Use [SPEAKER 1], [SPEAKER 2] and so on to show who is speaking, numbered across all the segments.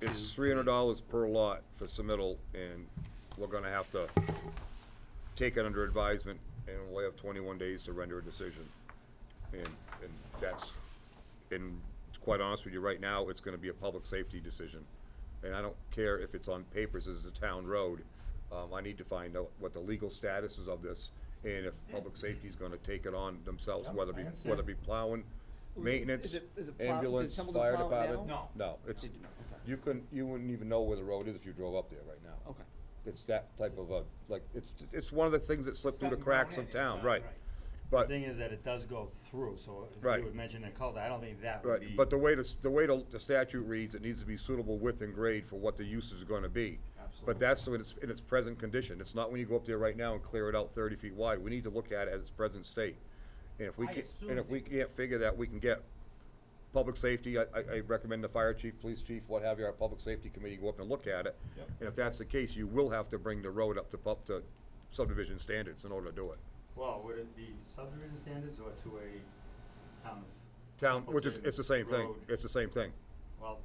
[SPEAKER 1] it's three hundred dollars per lot for submittal, and we're gonna have to take it under advisement, and we'll have twenty-one days to render a decision. And, and that's, and to quite honest with you, right now, it's gonna be a public safety decision. And I don't care if it's on papers as a town road, um, I need to find out what the legal status is of this, and if public safety's gonna take it on themselves, whether it be, whether it be plowing,
[SPEAKER 2] Is
[SPEAKER 1] maintenance,
[SPEAKER 2] it- is it plow- does
[SPEAKER 1] ambulance,
[SPEAKER 2] Templeton
[SPEAKER 1] fire
[SPEAKER 2] plow it
[SPEAKER 1] department.
[SPEAKER 2] now?
[SPEAKER 1] No, it's,
[SPEAKER 2] They do not, okay.
[SPEAKER 1] you couldn't, you wouldn't even know where the road is if you drove up there right now.
[SPEAKER 2] Okay.
[SPEAKER 1] It's that type of a, like, it's, it's one of the things that slip through the
[SPEAKER 3] gotten thrown
[SPEAKER 1] cracks
[SPEAKER 3] in,
[SPEAKER 1] of
[SPEAKER 3] it's
[SPEAKER 1] town,
[SPEAKER 3] not
[SPEAKER 1] right?
[SPEAKER 3] right.
[SPEAKER 1] But.
[SPEAKER 3] The thing is that it does go through, so if
[SPEAKER 1] Uh, Right.
[SPEAKER 3] you would mention a cul I don't think that would be.
[SPEAKER 1] Right, but the way the, s- the way the the statute reads, it needs to be suitable width and grade for what the use is gonna be. But
[SPEAKER 3] Absolutely.
[SPEAKER 1] that's in its, in its present condition, it's not when you go up there right now and clear it out thirty feet wide, we need to look at it at its present state. And if we
[SPEAKER 4] I
[SPEAKER 1] can, and
[SPEAKER 4] assumed
[SPEAKER 1] if we
[SPEAKER 4] it-
[SPEAKER 1] can't figure that, we can get public safety, I, I, I recommend the fire chief, police chief, what have you, our public safety committee go up and look at it.
[SPEAKER 3] Yep.
[SPEAKER 1] And if that's the case, you will have to bring the road up to pub, to subdivision standards in order to do it.
[SPEAKER 3] Well, would it be subdivision standards or to a town? of-
[SPEAKER 1] Town, which is, it's the same thing,
[SPEAKER 3] Road.
[SPEAKER 1] it's the same thing.
[SPEAKER 3] Well,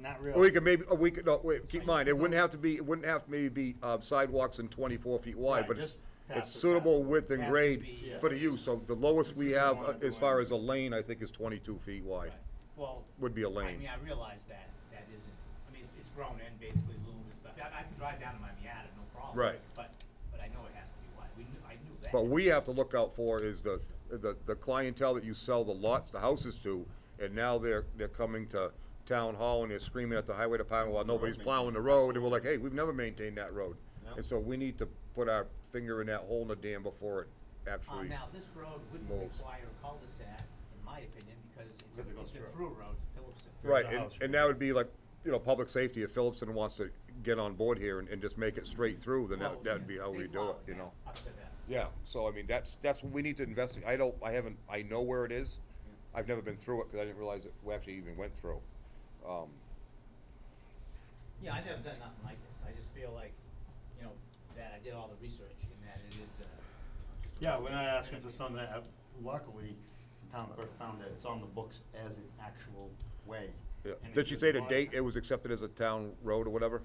[SPEAKER 3] not
[SPEAKER 1] Or we
[SPEAKER 3] really.
[SPEAKER 1] could maybe, or we could, no, wait, keep in mind, it wouldn't have to be, it wouldn't have to maybe be um, sidewalks and twenty-four feet wide,
[SPEAKER 3] Right,
[SPEAKER 1] but it's,
[SPEAKER 3] just
[SPEAKER 1] it's
[SPEAKER 3] past the
[SPEAKER 1] suitable
[SPEAKER 3] sidewalk.
[SPEAKER 1] width and
[SPEAKER 4] Has to
[SPEAKER 1] grade
[SPEAKER 4] be-
[SPEAKER 1] for the
[SPEAKER 3] Yeah.
[SPEAKER 1] use, so the lowest we have uh,
[SPEAKER 3] want to
[SPEAKER 1] as
[SPEAKER 3] do
[SPEAKER 1] far as a
[SPEAKER 3] anyways.
[SPEAKER 1] lane, I think, is twenty-two feet wide,
[SPEAKER 4] Right. Well,
[SPEAKER 1] would be a
[SPEAKER 4] I
[SPEAKER 1] lane.
[SPEAKER 4] mean, I realize that, that isn't, I mean, it's, it's grown in basically loom and stuff. I, I can drive down to my Miata, no problem.
[SPEAKER 1] Right.
[SPEAKER 4] But, but I know it has to be wide. We knew, I knew that.
[SPEAKER 1] But we have to look out for is the, the, the clientele that you sell the lots, the houses to, and now they're, they're coming to town hall and they're screaming at the highway department while nobody's plowing the road, and we're like, hey, we've never maintained that road.
[SPEAKER 3] Yeah.
[SPEAKER 1] And so we need to put our finger in that hole in the dam before it
[SPEAKER 4] Uh,
[SPEAKER 1] actually.
[SPEAKER 4] now, this road wouldn't
[SPEAKER 1] Moles.
[SPEAKER 4] require a cul-de-sac, in my opinion, because it's
[SPEAKER 3] Because it
[SPEAKER 4] a,
[SPEAKER 3] goes
[SPEAKER 4] it's a
[SPEAKER 3] through.
[SPEAKER 4] through road to Phillipston.
[SPEAKER 1] Right,
[SPEAKER 3] There's a
[SPEAKER 1] and,
[SPEAKER 3] house right
[SPEAKER 1] and that would be like, you know, public safety, if Phillipson wants to get on board here and, and just make it straight through, then
[SPEAKER 4] Well,
[SPEAKER 1] that, that'd be how
[SPEAKER 4] they
[SPEAKER 1] we do
[SPEAKER 4] plow
[SPEAKER 1] it, you
[SPEAKER 4] now
[SPEAKER 1] know?
[SPEAKER 4] Up to that.
[SPEAKER 1] Yeah, so I mean, that's, that's what we need to investigate, I don't, I haven't, I know where it is,
[SPEAKER 4] Mm-hmm.
[SPEAKER 1] I've never been through it, cause I didn't realize that we actually even went through. Um,
[SPEAKER 4] Yeah, I've never done nothing like this. I just feel like, you know, that I did all the research and that it is, uh, you know, just. a-
[SPEAKER 3] Yeah, we're not asking for something that, uh, luckily, the town clerk found that it's on the books as an actual way.
[SPEAKER 1] yeah.
[SPEAKER 3] and it
[SPEAKER 1] Did she
[SPEAKER 3] should
[SPEAKER 1] say the
[SPEAKER 3] modify-
[SPEAKER 1] date it was accepted as a town road or whatever?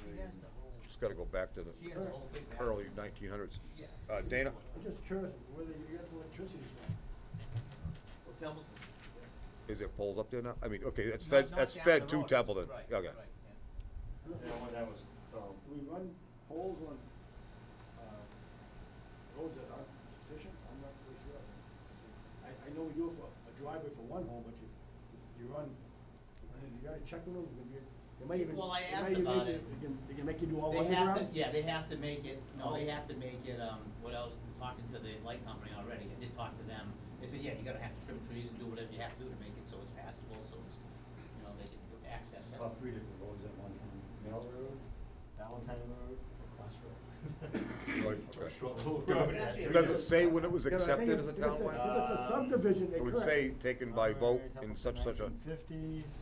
[SPEAKER 4] She has the whole,
[SPEAKER 1] Just gotta go back to the
[SPEAKER 4] she has the whole big. map.
[SPEAKER 1] early nineteen hundreds.
[SPEAKER 4] Yeah.
[SPEAKER 1] Uh, Dana?
[SPEAKER 5] I'm just curious where they get the electricity from.
[SPEAKER 4] Well, Templeton.
[SPEAKER 1] Is there poles up there now? I mean, okay, that's
[SPEAKER 4] Not-
[SPEAKER 1] fed,
[SPEAKER 4] not
[SPEAKER 1] that's
[SPEAKER 4] down
[SPEAKER 1] fed
[SPEAKER 4] the
[SPEAKER 1] to
[SPEAKER 4] road.
[SPEAKER 1] Templeton,
[SPEAKER 4] Right,
[SPEAKER 1] okay.
[SPEAKER 4] right, yeah.
[SPEAKER 3] Yeah, well, that was, um,
[SPEAKER 5] Do we run poles on, uh, roads that aren't sufficient? I'm not really sure. I, I know you do it for a driveway for one home, but you, you run, you gotta check them, you, they might even.
[SPEAKER 4] Well, I
[SPEAKER 5] they
[SPEAKER 4] asked
[SPEAKER 5] might even
[SPEAKER 4] about
[SPEAKER 5] make
[SPEAKER 4] it.
[SPEAKER 5] They can, they can make you do all
[SPEAKER 4] They have to,
[SPEAKER 5] underground?
[SPEAKER 4] yeah, they have to make it, no, they
[SPEAKER 5] Oh.
[SPEAKER 4] have to make it, um, what else, I'm talking to the light company already, I did talk to them. They said, yeah, you're gonna have to trim trees and do whatever you have to do to make it so it's passable, so it's, you know, they can access it.
[SPEAKER 3] about three different roads at one time, Mill Road, Valentine Road, or Cross Road.
[SPEAKER 1] Right,
[SPEAKER 3] Or
[SPEAKER 1] okay.
[SPEAKER 3] Short Hill
[SPEAKER 4] Does
[SPEAKER 3] Road.
[SPEAKER 4] it-
[SPEAKER 3] actually.
[SPEAKER 1] Does it say when it was
[SPEAKER 5] Because I think
[SPEAKER 1] accepted as a
[SPEAKER 5] if- if
[SPEAKER 1] town
[SPEAKER 5] it's
[SPEAKER 1] way?
[SPEAKER 5] If it's a subdivision, they
[SPEAKER 1] It would
[SPEAKER 5] could.
[SPEAKER 1] say taken by vote in such such a,
[SPEAKER 3] Nineteen fifties,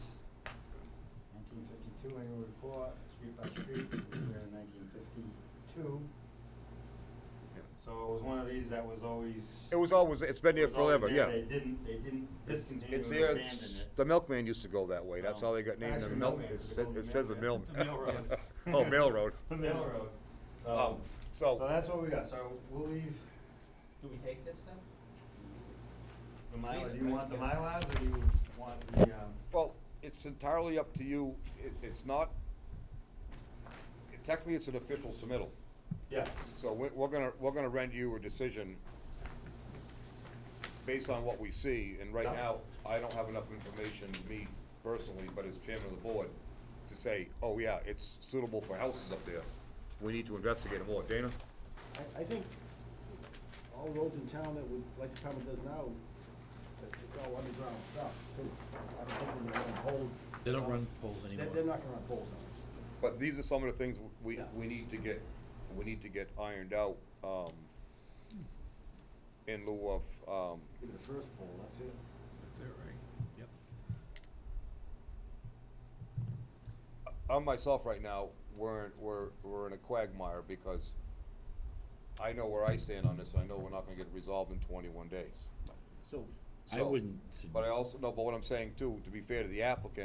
[SPEAKER 3] nineteen fifty-two annual report, street by street, we were in nineteen fifty-two.
[SPEAKER 1] Yeah.
[SPEAKER 3] So it was one of these that was always.
[SPEAKER 1] it was always, it's been there
[SPEAKER 3] was always
[SPEAKER 1] forever,
[SPEAKER 3] there.
[SPEAKER 1] yeah.
[SPEAKER 3] They didn't, they didn't discontinue
[SPEAKER 1] It's
[SPEAKER 3] or
[SPEAKER 1] there,
[SPEAKER 3] abandon
[SPEAKER 1] it's,
[SPEAKER 3] it.
[SPEAKER 1] the milkman used to go that way, that's
[SPEAKER 3] No.
[SPEAKER 1] how they got named, the
[SPEAKER 3] Actually,
[SPEAKER 1] milk,
[SPEAKER 3] Millman,
[SPEAKER 1] it
[SPEAKER 3] it's
[SPEAKER 1] says,
[SPEAKER 3] called
[SPEAKER 1] it says the mill.
[SPEAKER 3] Millman. The Mill Road.
[SPEAKER 1] Oh, Mill Road.
[SPEAKER 3] The Mill Road.
[SPEAKER 1] Um,
[SPEAKER 3] So,
[SPEAKER 1] so-
[SPEAKER 3] so that's what we got, so we'll leave
[SPEAKER 4] Do we take this then?
[SPEAKER 3] the Mylar,
[SPEAKER 4] Leave it,
[SPEAKER 3] do you
[SPEAKER 4] right?
[SPEAKER 3] want the Mylars or do you want the, um?
[SPEAKER 1] Well, it's entirely up to you, it, it's not, technically, it's an official submittal,
[SPEAKER 3] Yes.
[SPEAKER 1] so we're, we're gonna, we're gonna rent you a decision based on what we see, and right
[SPEAKER 3] Yeah.
[SPEAKER 1] now, I don't have enough information, me personally, but as chairman of the board, to say, oh yeah, it's suitable for houses up there, we need to investigate it more, Dana?
[SPEAKER 5] I, I think all roads in town that would, like the common does now, that it's all underground stuff, too. I don't think they're gonna hold.
[SPEAKER 6] They don't run poles
[SPEAKER 5] They-
[SPEAKER 6] anymore.
[SPEAKER 5] They're not gonna run poles now.
[SPEAKER 1] But these are some of the things we,
[SPEAKER 5] Yeah.
[SPEAKER 1] we need to get, we need to get ironed out, um, in lieu of, um,
[SPEAKER 5] Give it the first pole, that's it.
[SPEAKER 6] Yep.
[SPEAKER 1] on myself right now, we're, in- we're, we're in a quagmire because I know where I stand on this, and I know we're not gonna get it resolved in twenty-one days.
[SPEAKER 2] So
[SPEAKER 6] I
[SPEAKER 1] So-
[SPEAKER 6] wouldn't sug-
[SPEAKER 1] But I also, no, but what I'm saying too, to be fair to the applicant,